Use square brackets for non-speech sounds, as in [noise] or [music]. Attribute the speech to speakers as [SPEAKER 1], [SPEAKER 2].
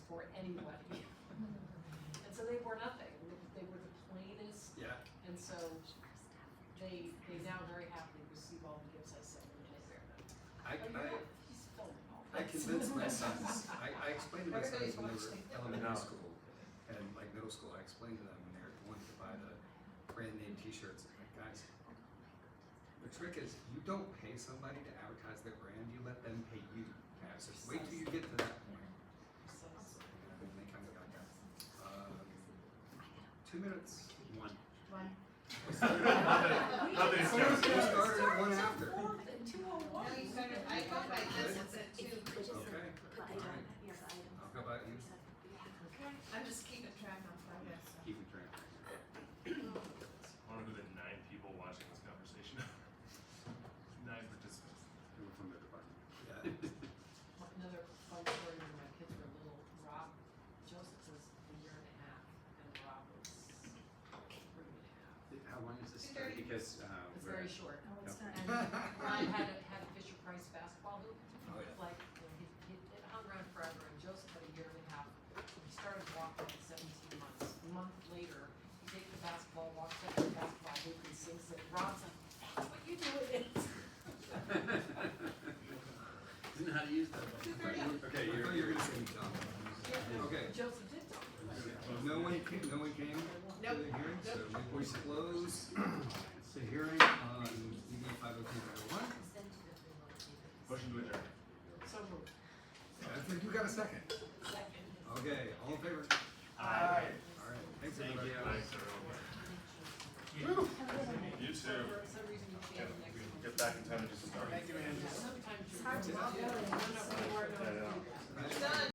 [SPEAKER 1] anybody.
[SPEAKER 2] [laughs]
[SPEAKER 1] And so they were nothing, they were the plainest,
[SPEAKER 3] Yeah,
[SPEAKER 1] and so they, they now very happily receive all the gifts I send them and I wear them. But
[SPEAKER 3] I, I,
[SPEAKER 1] you're not- he's filming all
[SPEAKER 3] I
[SPEAKER 1] this.
[SPEAKER 3] convinced my
[SPEAKER 1] [laughs]
[SPEAKER 3] sons, I, I explained to my sons
[SPEAKER 1] Everybody's
[SPEAKER 3] when they were
[SPEAKER 1] watching.
[SPEAKER 3] elementary
[SPEAKER 4] No.
[SPEAKER 3] school and like middle school, I explained to them when they were wanting to buy the brand name t-shirts, I'm like, guys, the trick is you don't pay somebody to advertise their brand, you let them pay you. to advertise. Wait till you get to that point.
[SPEAKER 1] So,
[SPEAKER 3] [laughs] And they kind of got that. Um, two minutes, one. [laughs]
[SPEAKER 2] One.
[SPEAKER 1] We just-
[SPEAKER 4] Nothing's
[SPEAKER 1] we
[SPEAKER 4] gonna- We
[SPEAKER 1] just
[SPEAKER 3] started at one
[SPEAKER 1] at
[SPEAKER 3] after.
[SPEAKER 1] four and two oh one.
[SPEAKER 2] No, you started, I go by this, it's at two.
[SPEAKER 3] Okay, alright, I'll go by you.
[SPEAKER 2] I'm just keeping track on progress. so.
[SPEAKER 3] Keep it track.
[SPEAKER 4] I wonder who the nine people watching this conversation [laughs] are. nine participants.
[SPEAKER 3] From the department. Yeah.
[SPEAKER 1] Another fun story when my kids were little, Rob, Joseph was a year and a half and Rob was three and a half.
[SPEAKER 5] How long is this story? Because, uh,
[SPEAKER 1] It's
[SPEAKER 5] we're, [laughs]
[SPEAKER 1] very short.
[SPEAKER 2] No, it's not.
[SPEAKER 1] And
[SPEAKER 3] [laughs]
[SPEAKER 1] Rob had a, had a Fisher Price basketball hoop,
[SPEAKER 3] Oh, yeah.
[SPEAKER 1] like, you know, he, he, it hung around forever and Joseph had a year and a half. He started walking at seventeen months. A month later, he takes the basketball, walks up to the basketball hoop and sings it. Rob's like, that's what you do it [laughs] is.
[SPEAKER 5] isn't how to use that. Okay,
[SPEAKER 3] I
[SPEAKER 5] you're,
[SPEAKER 3] thought you were gonna say dumb. Okay.
[SPEAKER 1] Joseph did talk.
[SPEAKER 3] No one came, no one came to the hearing, so we will close the hearing on DB five oh two nine one.
[SPEAKER 4] Motion to adjourn.
[SPEAKER 1] So moved.
[SPEAKER 3] I think you got a second.
[SPEAKER 1] Second.
[SPEAKER 3] Okay, all in favor?
[SPEAKER 4] Aye.
[SPEAKER 3] All right, thanks
[SPEAKER 5] Thank
[SPEAKER 3] everybody.
[SPEAKER 5] you.
[SPEAKER 4] Thanks, everyone. You too.
[SPEAKER 1] For some reason you can't next
[SPEAKER 4] We
[SPEAKER 1] one.
[SPEAKER 4] Get back in time to do some gardening.
[SPEAKER 1] Sometimes you're. Sometimes you're.
[SPEAKER 2] Done.